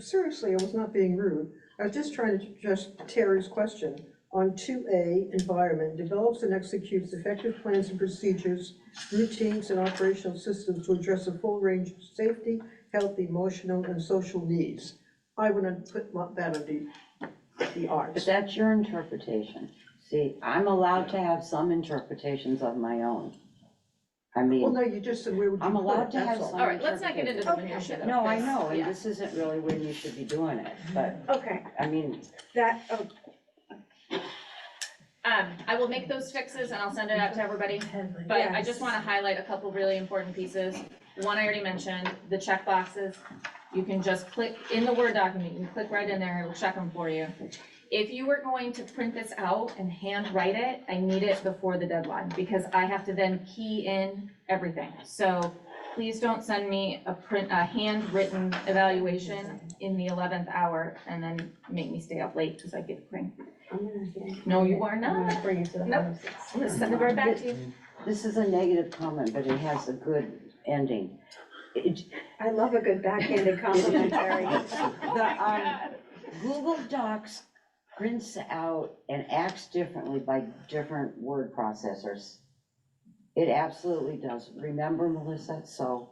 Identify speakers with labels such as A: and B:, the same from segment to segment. A: Seriously, I was not being rude. I was just trying to address Terry's question on two A, environment, develops and executes effective plans and procedures, routines and operational systems to address a full range of safety, health, emotional, and social needs. I wouldn't put my- that on the, the
B: But
A: arts.
B: that's your interpretation. See, I'm allowed to have some interpretations of my own. I
A: Well,
B: mean,
A: no, you just said where would you
B: I'm
A: put
B: allowed
A: it,
B: to have
A: that's all.
B: some-
C: All right, let's not get into the
D: Okay,
C: minutia
D: sure.
C: though.
B: no, I know, and
C: Yeah.
B: this isn't really when you should be doing it, but,
D: Okay,
B: I mean,
D: that, oh,
C: Um, I will make those fixes and I'll send it out to everybody, but I just wanna highlight a couple really important pieces. One I already mentioned, the check boxes. You can just click in the Word document, you can click right in there, it'll check them for you. If you were going to print this out and handwrite it, I need it before the deadline, because I have to then key in everything. So please don't send me a print, a handwritten evaluation in the eleventh hour and then make me stay up late because I get cranky.
D: I'm gonna.
C: No, you are
D: I'm
C: not.
D: gonna bring it to the
C: No.
D: house.
C: I'm gonna send it right back to you.
B: this is a negative comment, but it has a good ending. It-
D: I love a good backhanded compliment, Terry.
B: The, um, Google Docs prints out and acts differently by different word processors. It absolutely does. Remember, Melissa, so,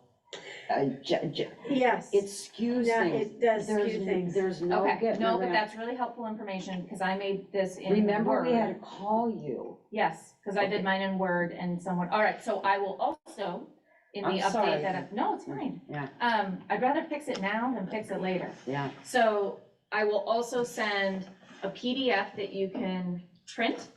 B: uh, ju- ju-
D: Yes,
B: it skews
D: Yeah,
B: things.
D: it does
B: There's
D: skew
B: n-
D: things.
B: There's no
C: Okay,
B: getting
C: no, but
B: around-
C: that's really helpful information, because I made this in
B: Remember, we had
C: Word.
B: to call you.
C: Yes, because I did mine in Word and someone, all right, so I will also, in the
B: I'm sorry.
C: update that, I- no, it's fine.
B: Yeah.
C: Um, I'd rather fix it now than fix it later.
B: Yeah,
C: So I will also send a PDF that you can print,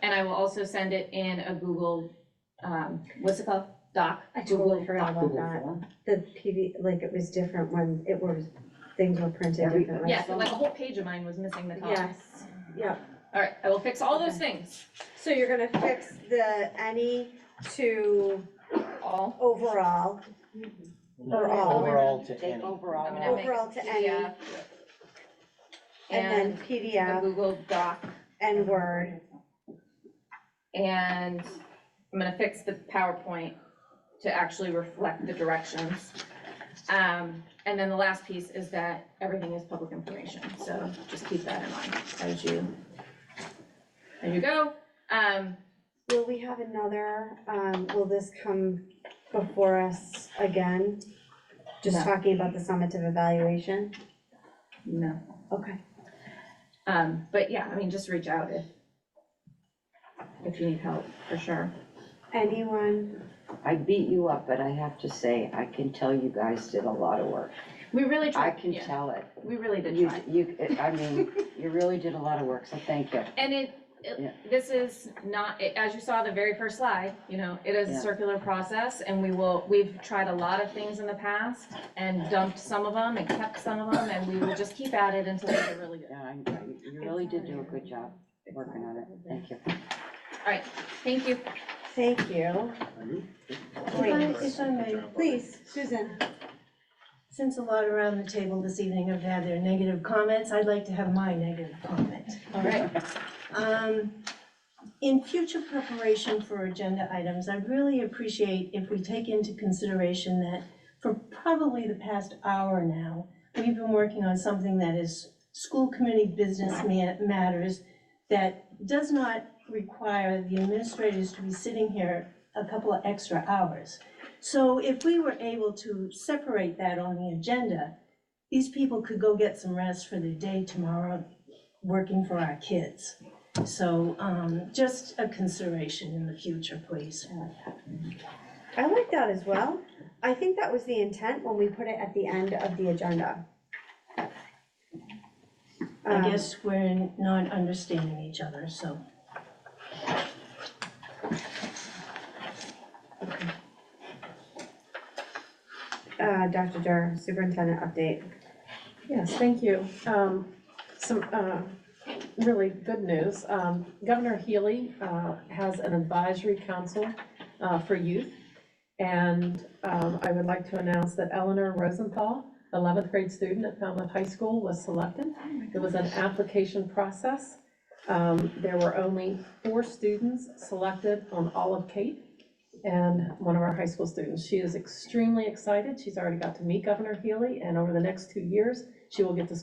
C: and I will also send it in a Google, um, what's it called? Doc?
D: I totally
C: Google
D: forgot
C: Doc.
D: about
B: Google
D: that.
B: Form.
D: The PV, like, it was different when it was, things were printed
B: Every-
D: differently.
C: Yeah, so like a whole page of mine was missing the column.
D: Yes, yeah.
C: All right, I will fix all those things.
D: So you're gonna fix the any to
C: All.
D: overall, Or all.
E: Overall to
B: take
E: any.
C: I'm
B: overall.
C: gonna make a
D: Overall to any.
C: PDF
D: and then
C: And a
D: PDF
C: Google Doc,
D: and Word.
C: and I'm gonna fix the PowerPoint to actually reflect the directions. Um, and then the last piece is that everything is public information, so just keep that in mind as you, as you go. Um,
D: Will we have another, um, will this come before us again? Just
C: No.
D: talking about the summative evaluation?
C: no,
D: Okay.
C: um, but yeah, I mean, just reach out if, if you need help, for sure.
D: Anyone?
B: I beat you up, but I have to say, I can tell you guys did a lot of work.
C: We really
B: I
C: tried,
B: can
C: yeah,
B: tell it.
C: we really did
B: You,
C: try.
B: you, I mean, you really did a lot of work, so thank you.
C: And it,
B: Yeah.
C: it- this is not, it- as you saw the very first slide, you know, it is a
B: Yeah.
C: circular process and we will, we've tried a lot of things in the past and dumped some of them and kept some of them and we will just keep at it until they get really good.
B: Yeah, I- I- you really did do a good job working on it, thank you.
C: Thank you.
D: Thank you.
F: If I, if I may,
D: Please, Susan.
F: since a lot around the table this evening have had their negative comments, I'd like to have my negative comment.
C: All right.
F: Um, In future preparation for agenda items, I'd really appreciate if we take into consideration that for probably the past hour now, we've been working on something that is school committee business ma- matters that does not require the administrators to be sitting here a couple of extra hours. So if we were able to separate that on the agenda, these people could go get some rest for their day tomorrow, working for our kids. So, um, just a consideration in the future, please.
D: I like that as well. I think that was the intent when we put it at the end of the agenda.
F: I
D: Um,
F: guess we're not understanding each other, so.
D: Uh, Dr. Dur, superintendent update.
G: Yes, thank you. Um, Some uh, really good news. Um, Governor Healy uh, has an advisory council uh, for youth. And um, I would like to announce that Eleanor Rosenthal, 11th grade student at Falmouth High School, was selected. It was an application process. Um, There were only four students selected on all of Cape and one of our high school students. She is extremely excited. She's already got to meet Governor Healy, and over the next two years, She will get the